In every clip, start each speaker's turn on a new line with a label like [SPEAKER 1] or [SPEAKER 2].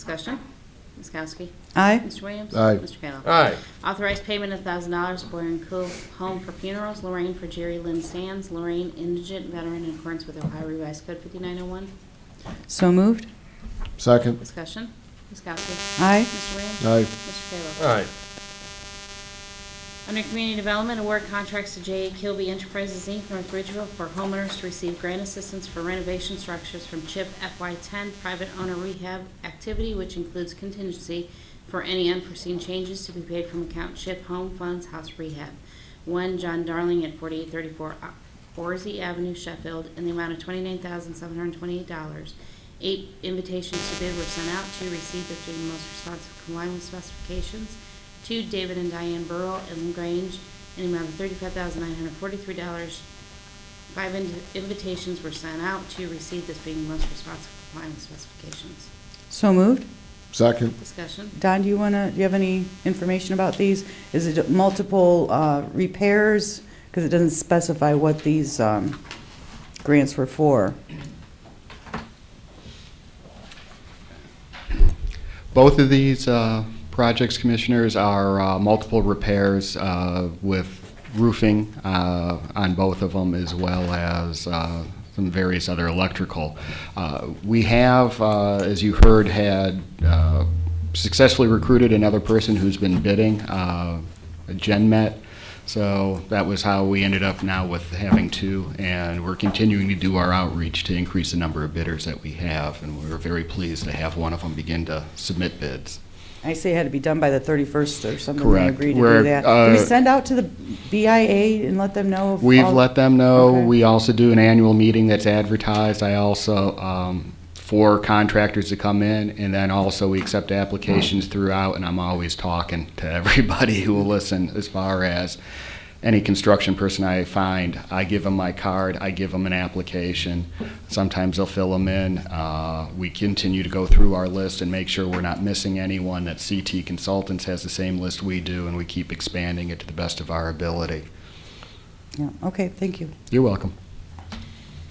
[SPEAKER 1] Discussion. Ms. Kowski.
[SPEAKER 2] Aye.
[SPEAKER 1] Mr. Williams.
[SPEAKER 3] Aye.
[SPEAKER 1] Mr. Kayla.
[SPEAKER 4] Aye.
[SPEAKER 1] Authorized payment of thousand dollars for Boyer and Cool Home for Funerals, Lorraine for Jerry Lynn Sands, Lorraine indigent veteran in accordance with Ohio Revised Code fifty-nine oh one.
[SPEAKER 2] So moved.
[SPEAKER 3] Second.
[SPEAKER 1] Discussion. Ms. Kowski.
[SPEAKER 2] Aye.
[SPEAKER 1] Mr. Williams.
[SPEAKER 3] Aye.
[SPEAKER 1] Mr. Kayla.
[SPEAKER 4] Aye.
[SPEAKER 1] Under Community Development, award contracts to J.A. Kilby Enterprises, Inc., North Ridgeville for homeowners to receive grant assistance for renovation structures from CHIP FY10 private owner rehab activity, which includes contingency for any unforeseen changes to be paid from account CHIP Home Funds House Rehab. One John Darling at 4834 O- Orzie Avenue, Sheffield, in the amount of $29,728. Eight invitations to bid were sent out, two received as being the most responsive complying with specifications, to David and Diane Burrell and Grange in the amount of thirty-five thousand nine hundred forty-three dollars. Five in- invitations were sent out to receive this being the most responsive complying with specifications.
[SPEAKER 2] So moved.
[SPEAKER 3] Second.
[SPEAKER 1] Discussion?
[SPEAKER 2] Don, do you want to, do you have any information about these? Is it multiple uh, repairs? Because it doesn't specify what these um, grants were for.
[SPEAKER 5] Both of these uh, projects, Commissioners, are uh, multiple repairs uh, with roofing uh, on both of them, as well as uh, some various other electrical. Uh, We have, uh, as you heard, had uh, successfully recruited another person who's been bidding, uh, GenMet. So that was how we ended up now with having two, and we're continuing to do our outreach to increase the number of bidders that we have, and we're very pleased to have one of them begin to submit bids.
[SPEAKER 2] I say it had to be done by the 31st or something. We
[SPEAKER 5] Correct.
[SPEAKER 2] agreed to do
[SPEAKER 5] We're,
[SPEAKER 2] that. Do we
[SPEAKER 5] uh,
[SPEAKER 2] send out to the BIA and let them know? of
[SPEAKER 5] We've
[SPEAKER 2] all-
[SPEAKER 5] let them know.
[SPEAKER 2] Oh, Okay.
[SPEAKER 5] We also do an annual meeting that's advertised. I also, um, for contractors to come in, and then also we accept applications throughout, and I'm always talking to everybody who will listen as far as any construction person I find. I give them my card, I give them an application. Sometimes they'll fill them in. Uh, we continue to go through our list and make sure we're not missing anyone, that CT Consultants has the same list we do, and we keep expanding it to the best of our ability.
[SPEAKER 2] Yeah, Okay, thank you.
[SPEAKER 5] You're welcome.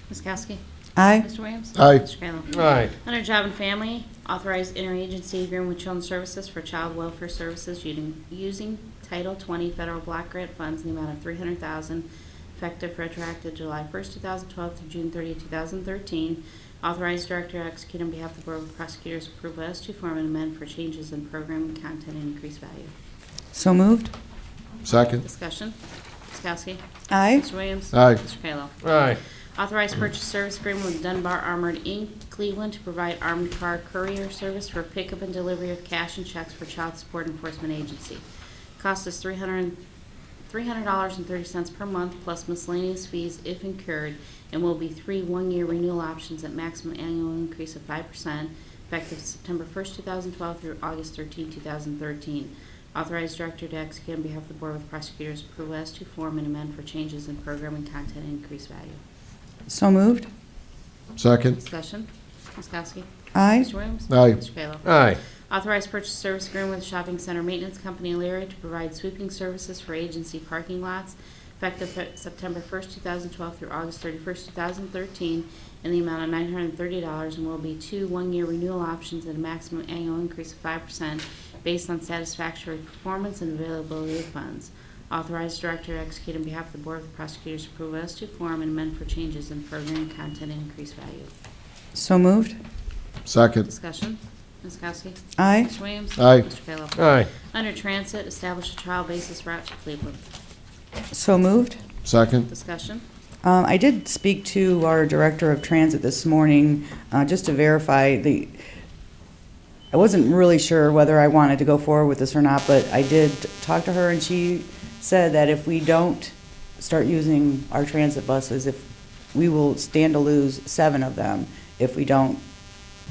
[SPEAKER 1] Ms. Kowski?
[SPEAKER 2] Aye.
[SPEAKER 1] Mr. Williams?
[SPEAKER 3] Aye.
[SPEAKER 1] Mr. Kayla?
[SPEAKER 4] Aye.
[SPEAKER 1] Under Job and Family, authorize interagency agreement with Children's Services for Child Welfare Services using- using Title 20 Federal Block Grant Funds in the amount of 300000 effective retroactive July 1st, 2012 through June 30th, 2013. Authorize director to execute on behalf of the Board of Prosecutors approval as to form and amend for changes in program content and increased value.
[SPEAKER 2] So moved.
[SPEAKER 3] Second.
[SPEAKER 1] Discussion. Ms. Kowski.
[SPEAKER 2] Aye.
[SPEAKER 1] Mr. Williams.
[SPEAKER 3] Aye.
[SPEAKER 1] Mr. Kayla.
[SPEAKER 4] Aye.
[SPEAKER 1] Authorized purchase service agreement with Dunbar Armored Inc., Cleveland, to provide armored car courier service for pickup and delivery of cash and checks for Child Support Enforcement Agency. Cost is three hundred dollars and thirty cents per month plus miscellaneous fees if incurred, and will be three one-year renewal options at maximum annual increase of five percent, effective September first, two thousand twelve through August 13, thousand thirteen. Authorized director to execute on behalf of the Board with prosecutors approval as to form and amend for changes in program and content and increased value.
[SPEAKER 2] So moved.
[SPEAKER 3] Second.
[SPEAKER 1] Discussion. Ms. Kowski.
[SPEAKER 2] Aye.
[SPEAKER 1] Mr. Williams.
[SPEAKER 3] Aye.
[SPEAKER 1] Mr. Kayla.
[SPEAKER 4] Aye.
[SPEAKER 1] Authorized purchase service agreement with Shopping Center Maintenance Company Leary to provide sweeping services for agency parking lots effective Fe- September 1st, 2012 through August 31st, 2013, in the amount of $930 and will be two one-year renewal options at a maximum annual increase of 5% based on satisfactory performance and availability of funds. Authorized director to execute on behalf of the Board of Prosecutors approval as to form and amend for changes in program content and increased value.
[SPEAKER 2] So moved.
[SPEAKER 3] Second.
[SPEAKER 1] Discussion. Ms. Kowski.
[SPEAKER 2] Aye.
[SPEAKER 1] Mr. Williams.
[SPEAKER 3] Aye.
[SPEAKER 1] Mr. Kayla.
[SPEAKER 4] Aye.
[SPEAKER 1] Under Transit, establish a trial basis route to Cleveland.
[SPEAKER 2] So moved.
[SPEAKER 3] Second.
[SPEAKER 1] Discussion.
[SPEAKER 2] Um, I did speak to our Director of Transit this morning, uh, just to verify the, I wasn't really sure whether I wanted to go forward with this or not, but I did talk to her, and she said that if we don't start using our transit buses, if, we will stand to lose seven of them if we don't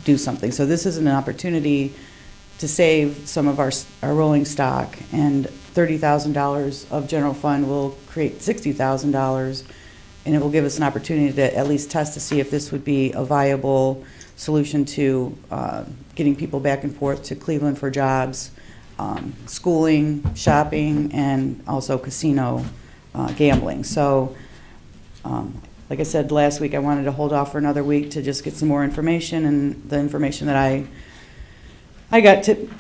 [SPEAKER 2] do something. So this is an opportunity to save some of our, s- our rolling stock, and $30,000 of general fund will create $60,000 and it will give us an opportunity to at least test to see if this would be a viable solution to uh, getting people back and forth to Cleveland for jobs, um, schooling, shopping, and also casino uh, gambling. So, um, like I said last week, I wanted to hold off for another week to just get some more information, and the information that I I got tip-